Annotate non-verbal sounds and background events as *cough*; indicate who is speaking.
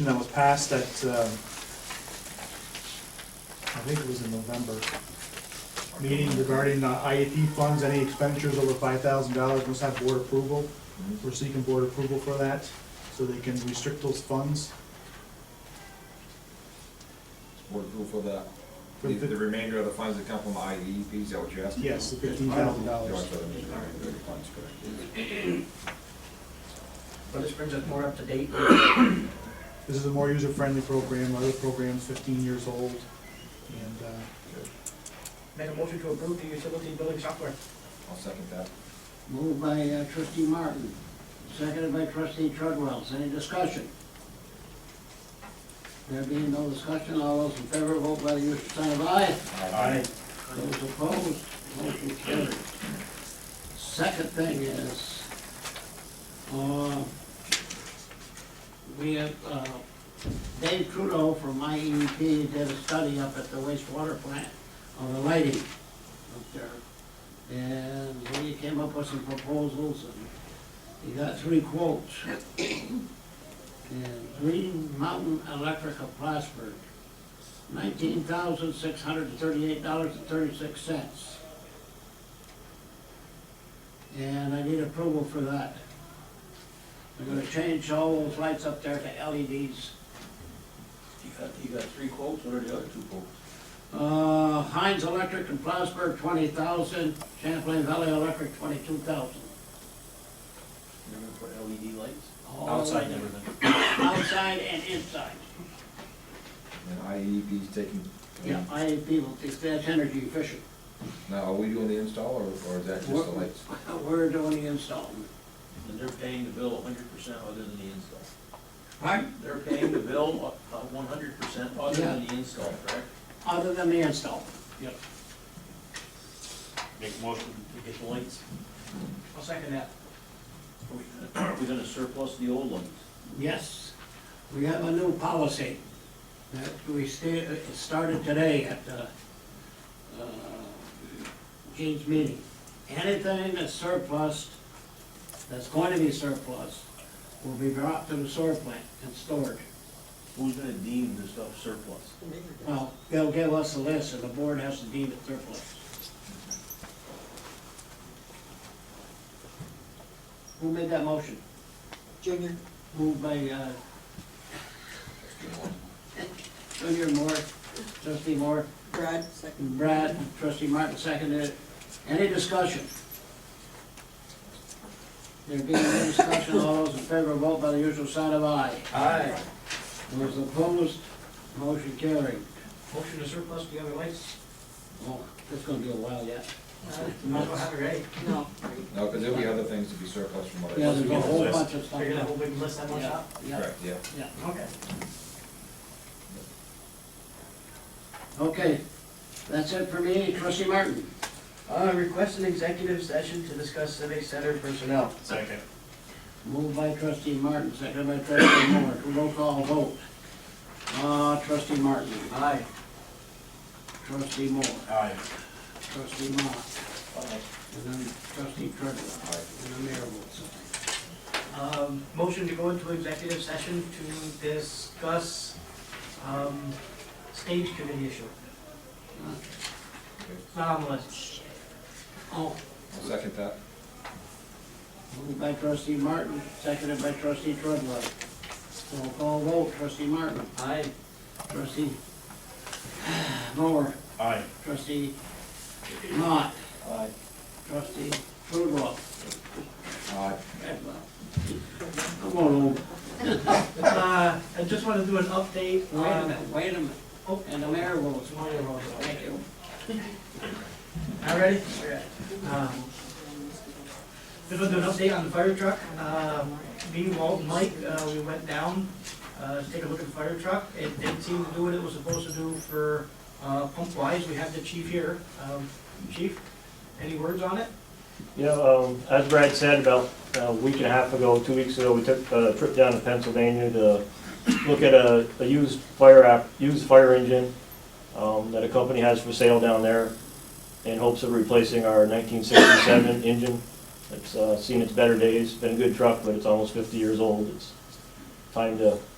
Speaker 1: resolution that was passed at, um, I think it was in November, meeting regarding uh, IEP funds, any expenditures over five thousand dollars must have board approval. We're seeking board approval for that, so they can restrict those funds.
Speaker 2: Board approval of that.
Speaker 1: For
Speaker 2: The,
Speaker 1: the-
Speaker 2: the remainder of the funds that come from IEP, is that what you're asking?
Speaker 1: Yes, the fifteen thousand
Speaker 2: You
Speaker 1: dollars.
Speaker 2: want to put them in the remainder of the funds, correct?
Speaker 3: Well, this brings us more up to date.
Speaker 1: This is a more user-friendly program, other program's fifteen years old, and, uh,
Speaker 3: Make a motion to approve the utility billing software.
Speaker 2: I'll second that.
Speaker 4: Moved by uh, trustee Martin, seconded by trustee Treadwell. Any discussion? There being no discussion, all those in favor, vote by the usual sign of aye.
Speaker 2: Aye.
Speaker 4: Those opposed, motion carried. Second thing is, uh, we have, uh, Dave Trudeau from IEP did a study up at the wastewater plant on the lighting up there. And he came up with some proposals and he got three quotes. *coughs* And Green Mountain Electric of Plattsburgh nineteen thousand six hundred and thirty-eight dollars and thirty-six cents. And I need approval for that. I'm gonna change all those lights up there to E LEDs.
Speaker 5: You got, you got three quotes, what are the other two quotes?
Speaker 4: Uh, Heinz Electric in Plattsburgh, twenty thousand, Champlain Valley Electric, twenty-two thousand.
Speaker 5: They're gonna put LED lights? Outside and everything.
Speaker 4: Outside and inside.
Speaker 2: And IEP is taking,
Speaker 4: Yeah, IAP will, it's that energy efficient.
Speaker 2: now, are we doing the install or, or is that just the
Speaker 4: We're-
Speaker 2: lights?
Speaker 4: We're doing the install.
Speaker 5: And they're paying the bill hundred percent other than the install.
Speaker 4: Right.
Speaker 5: They're paying the bill uh, one hundred percent other than
Speaker 4: Yeah.
Speaker 5: the install, correct?
Speaker 4: Other than the install.
Speaker 5: Yep. Make a motion to get the lights.
Speaker 3: I'll second that.
Speaker 5: Are we gonna- Are we gonna surplus the old ones?
Speaker 4: Yes, we have a new policy that we sta- it started today at the uh, Gene's meeting. Anything that's surplus, that's going to be surplus, will be brought to the sewer plant and stored.
Speaker 5: Who's gonna deem this stuff surplus?
Speaker 4: Well, they'll give us a list, and the board has to deem it surplus. Who made that motion?
Speaker 6: Junior,
Speaker 4: Moved by, uh, Junior Moore, trustee Moore,
Speaker 6: Brad, second.
Speaker 4: and Brad, trustee Martin seconded it. Any discussion? There being no discussion, all those in favor vote by the usual sign of aye.
Speaker 3: Aye.
Speaker 4: Those opposed, motion carried.
Speaker 3: Motion to surplus the other lights.
Speaker 4: Oh, it's gonna be a while yet.
Speaker 6: Uh,
Speaker 3: Might as well have it ready.
Speaker 6: No.
Speaker 2: No, because there'll be other things to be surplus from what I.
Speaker 4: Yeah, there's a whole
Speaker 3: List.
Speaker 4: bunch of stuff.
Speaker 3: They're gonna have a big list on one
Speaker 4: Yeah,
Speaker 3: shop.
Speaker 4: yeah,
Speaker 2: Correct, yeah.
Speaker 4: yeah.
Speaker 3: Okay.
Speaker 4: Okay, that's it for me, trustee Martin.
Speaker 3: Uh, request an executive session to discuss civic center personnel.
Speaker 7: Second.
Speaker 4: Moved by trustee Martin, second by trustee Moore, roll call vote. Uh, trustee Martin,
Speaker 3: Aye.
Speaker 4: trustee Moore,
Speaker 7: Aye.
Speaker 4: trustee Mock, and then trustee Treadwell, and the mayor votes
Speaker 3: Um, motion to go into executive session to discuss, um, stage committee issue.
Speaker 4: aye.
Speaker 3: It's not on the list.
Speaker 4: Oh,
Speaker 2: I'll second that.
Speaker 4: moved by trustee Martin, seconded by trustee Treadwell. Roll call vote, trustee Martin,
Speaker 3: Aye.
Speaker 4: trustee Moore,
Speaker 7: Aye.
Speaker 4: trustee Mock,
Speaker 2: Aye.
Speaker 4: trustee Treadwell,
Speaker 2: Aye.
Speaker 4: Treadwell. Come on over.
Speaker 3: Uh, I just want to do an update um,
Speaker 4: Wait a
Speaker 3: on.
Speaker 4: minute, wait a minute.
Speaker 3: Oh.
Speaker 4: And the mayor will,
Speaker 3: It's Mario Rose.
Speaker 4: thank you.
Speaker 3: All ready? Um, Just want to do an update on the fire truck. Um, Me, Walt, and Mike, uh, we went down uh, to take a look at the fire truck. It didn't seem to do what it was supposed to do for uh, pump wise. We have the chief here. Um, Chief, any words on it?
Speaker 8: You know, um, as Brad said, about uh, a week and a half ago, two weeks ago, we took a trip down to Pennsylvania to look at a, a used fire app, used fire engine, um, that a company has for sale down there in hopes of replacing our nineteen sixty-seven engine. It's, uh, seen its better days, been a good truck, but it's almost fifty years old. It's time to